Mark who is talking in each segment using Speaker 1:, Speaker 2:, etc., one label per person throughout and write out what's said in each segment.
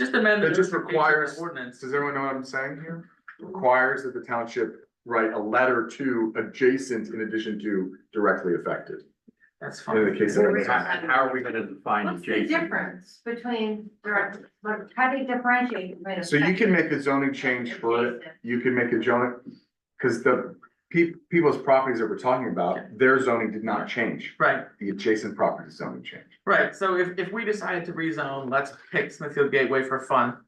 Speaker 1: amend the
Speaker 2: It just
Speaker 1: notification
Speaker 2: requires-
Speaker 1: ordinance.
Speaker 2: Does everyone know what I'm saying here? Requires that the township write a letter to adjacent in addition to directly affected.
Speaker 1: That's
Speaker 2: In the
Speaker 1: fine.
Speaker 2: case of.
Speaker 3: Wait,
Speaker 4: How how are we gonna define
Speaker 3: What's the
Speaker 4: adjacent?
Speaker 3: difference between direct, like, how do you differentiate? between
Speaker 2: So you can
Speaker 3: effective-
Speaker 2: make a zoning change for it, you can make a zoning, cause the peop people's properties that we're talking about, their zoning did not change.
Speaker 1: Right,
Speaker 2: The adjacent property zoning changed.
Speaker 1: right, so if, if we decided to rezone, let's pick Smithfield Gateway for fun.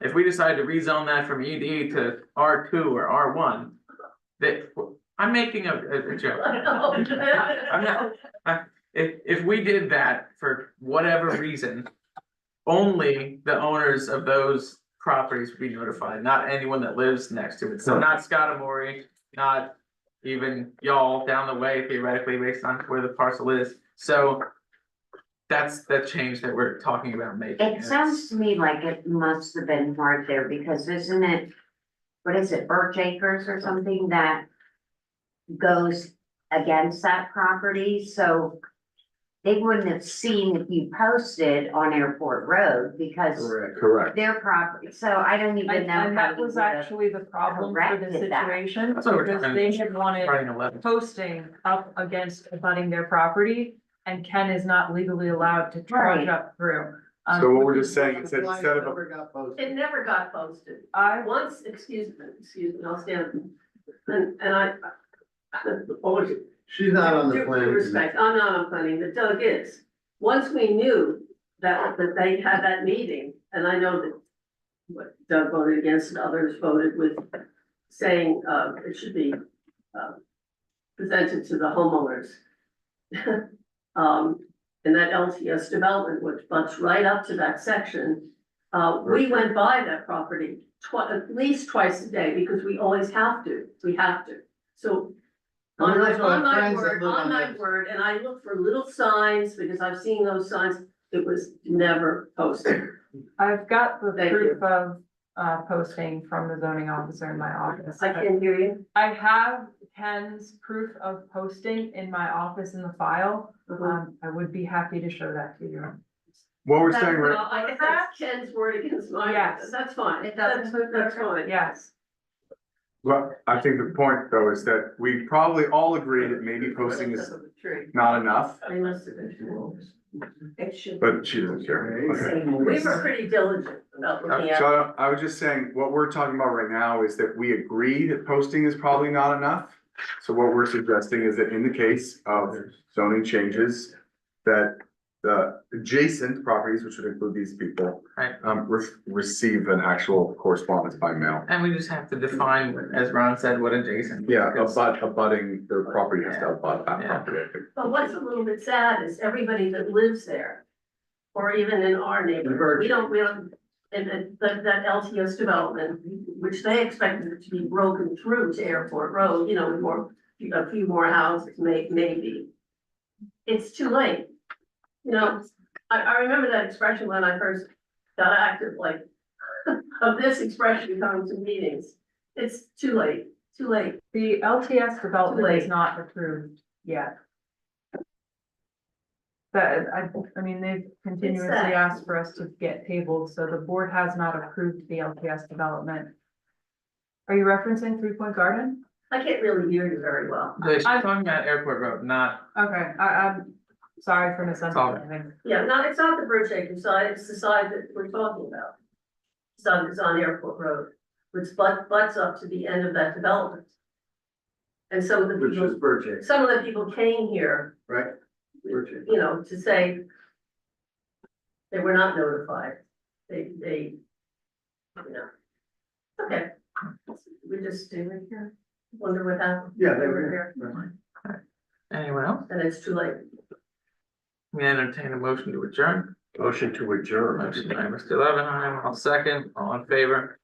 Speaker 1: If we decided to rezone that from ED to R two or R one, that, I'm making a, a- a joke. I'm not, I, if, if we did that for whatever reason, only the owners of those properties would be notified, not anyone that lives next to it, so not Scottamore, not even y'all down the way theoretically based on where the parcel is, so that's the change that we're talking about making.
Speaker 5: It sounds to me like it must have been hard there because isn't it, what is it, Birch Acres or something that goes against that property, so they wouldn't have seen if you posted on Airport Road because
Speaker 4: Correct.
Speaker 2: Correct.
Speaker 5: their property, so I don't even
Speaker 6: And,
Speaker 5: know
Speaker 6: and
Speaker 5: how
Speaker 6: that
Speaker 5: you would
Speaker 6: was
Speaker 5: have.
Speaker 6: actually the problem for the
Speaker 5: corrected that.
Speaker 6: situation,
Speaker 1: That's what we're
Speaker 6: because
Speaker 1: trying to-
Speaker 6: they had wanted
Speaker 1: Writing a letter.
Speaker 6: posting up against abutting their property. And Ken is not legally allowed to charge
Speaker 5: Right.
Speaker 6: up through. Um,
Speaker 2: So what we're just saying, it said instead of, a-
Speaker 7: It never got posted.
Speaker 6: I,
Speaker 7: Once, excuse me, excuse me, I'll stand. And, and I, always.
Speaker 4: She's not on the
Speaker 7: due
Speaker 4: planning commission.
Speaker 7: Respect, I'm not on planning, but Doug is. Once we knew that, that they had that meeting, and I know that what Doug voted against and others voted with saying, uh, it should be, uh, presented to the homeowners. Um, and that LTS development, which butts right up to that section, uh, we went by that property twi- at least twice a day, because we always have to, we have to. So
Speaker 4: And we
Speaker 7: on my,
Speaker 4: also have
Speaker 7: on my
Speaker 4: friends that
Speaker 7: word,
Speaker 4: live on
Speaker 7: on my
Speaker 4: this.
Speaker 7: word, and I look for little signs, because I've seen those signs, it was never posted.
Speaker 6: I've got the
Speaker 7: Thank
Speaker 6: proof of, uh, posting from the zoning officer in my office.
Speaker 7: I can't hear you.
Speaker 6: I have Ken's proof of posting in my office in the file.
Speaker 7: Uh-huh.
Speaker 6: Um, I would be happy to show that to you.
Speaker 2: what we're
Speaker 7: That's-
Speaker 2: saying, right-
Speaker 7: well, I guess that's Ken's word against mine,
Speaker 6: Yes.
Speaker 7: that's fine,
Speaker 3: It
Speaker 7: that's,
Speaker 3: doesn't-
Speaker 7: that's fine.
Speaker 6: Yes.
Speaker 2: well, I think the point though is that we probably all agree that maybe posting is
Speaker 7: True.
Speaker 2: not enough,
Speaker 7: They must have been too old. It should.
Speaker 2: but she doesn't care. Okay.
Speaker 7: We were pretty diligent about looking
Speaker 2: Uh,
Speaker 7: at.
Speaker 2: So I was just saying, what we're talking about right now is that we agree that posting is probably not enough. So what we're suggesting is that in the case of zoning changes, that the adjacent properties, which would include these people.
Speaker 1: Right.
Speaker 2: Um, re- receive an actual correspondence by mail.
Speaker 1: And we just have to define, as Ron said, what adjacent.
Speaker 2: Yeah,
Speaker 1: because-
Speaker 2: abut, abutting, their property has to abut that
Speaker 1: Yeah.
Speaker 2: property, I think.
Speaker 7: But what's a little bit sad is everybody that lives there, or even in our neighborhood, we don't, we don't, and then that, that LTS development, which they expected it to be broken through to Airport Road, you know, with more, a few more houses, may, maybe. It's too late. You know, I, I remember that expression when I first got active, like, of this expression coming to meetings. It's too late, too late.
Speaker 6: The LTS development is
Speaker 7: Wait.
Speaker 6: not approved yet. But I, I mean, they've continuously
Speaker 7: that?
Speaker 6: asked for us to get tables, so the board has not approved the LTS development. Are you referencing Three Point Garden?
Speaker 7: I can't really hear you very well.
Speaker 1: They're talking about Airport Road, not
Speaker 6: Okay, I, I'm sorry for misunderstanding.
Speaker 7: Yeah, no, it's not the bridge acre side, it's the side that we're talking about. It's on, it's on Airport Road, which butt, butts up to the end of that development. And some of the people,
Speaker 4: Burgess,
Speaker 7: some of the people came here,
Speaker 4: right?
Speaker 7: you know, to say they were not notified, they, they, you know. Okay, we just do it here, wonder what happened.
Speaker 4: Yeah,
Speaker 7: They were here,
Speaker 1: anyone else.
Speaker 7: and it's too late.
Speaker 1: We entertain a motion to adjourn.
Speaker 4: Motion to adjourn.
Speaker 1: Motion by Mr. Levinheim, all second, all in favor.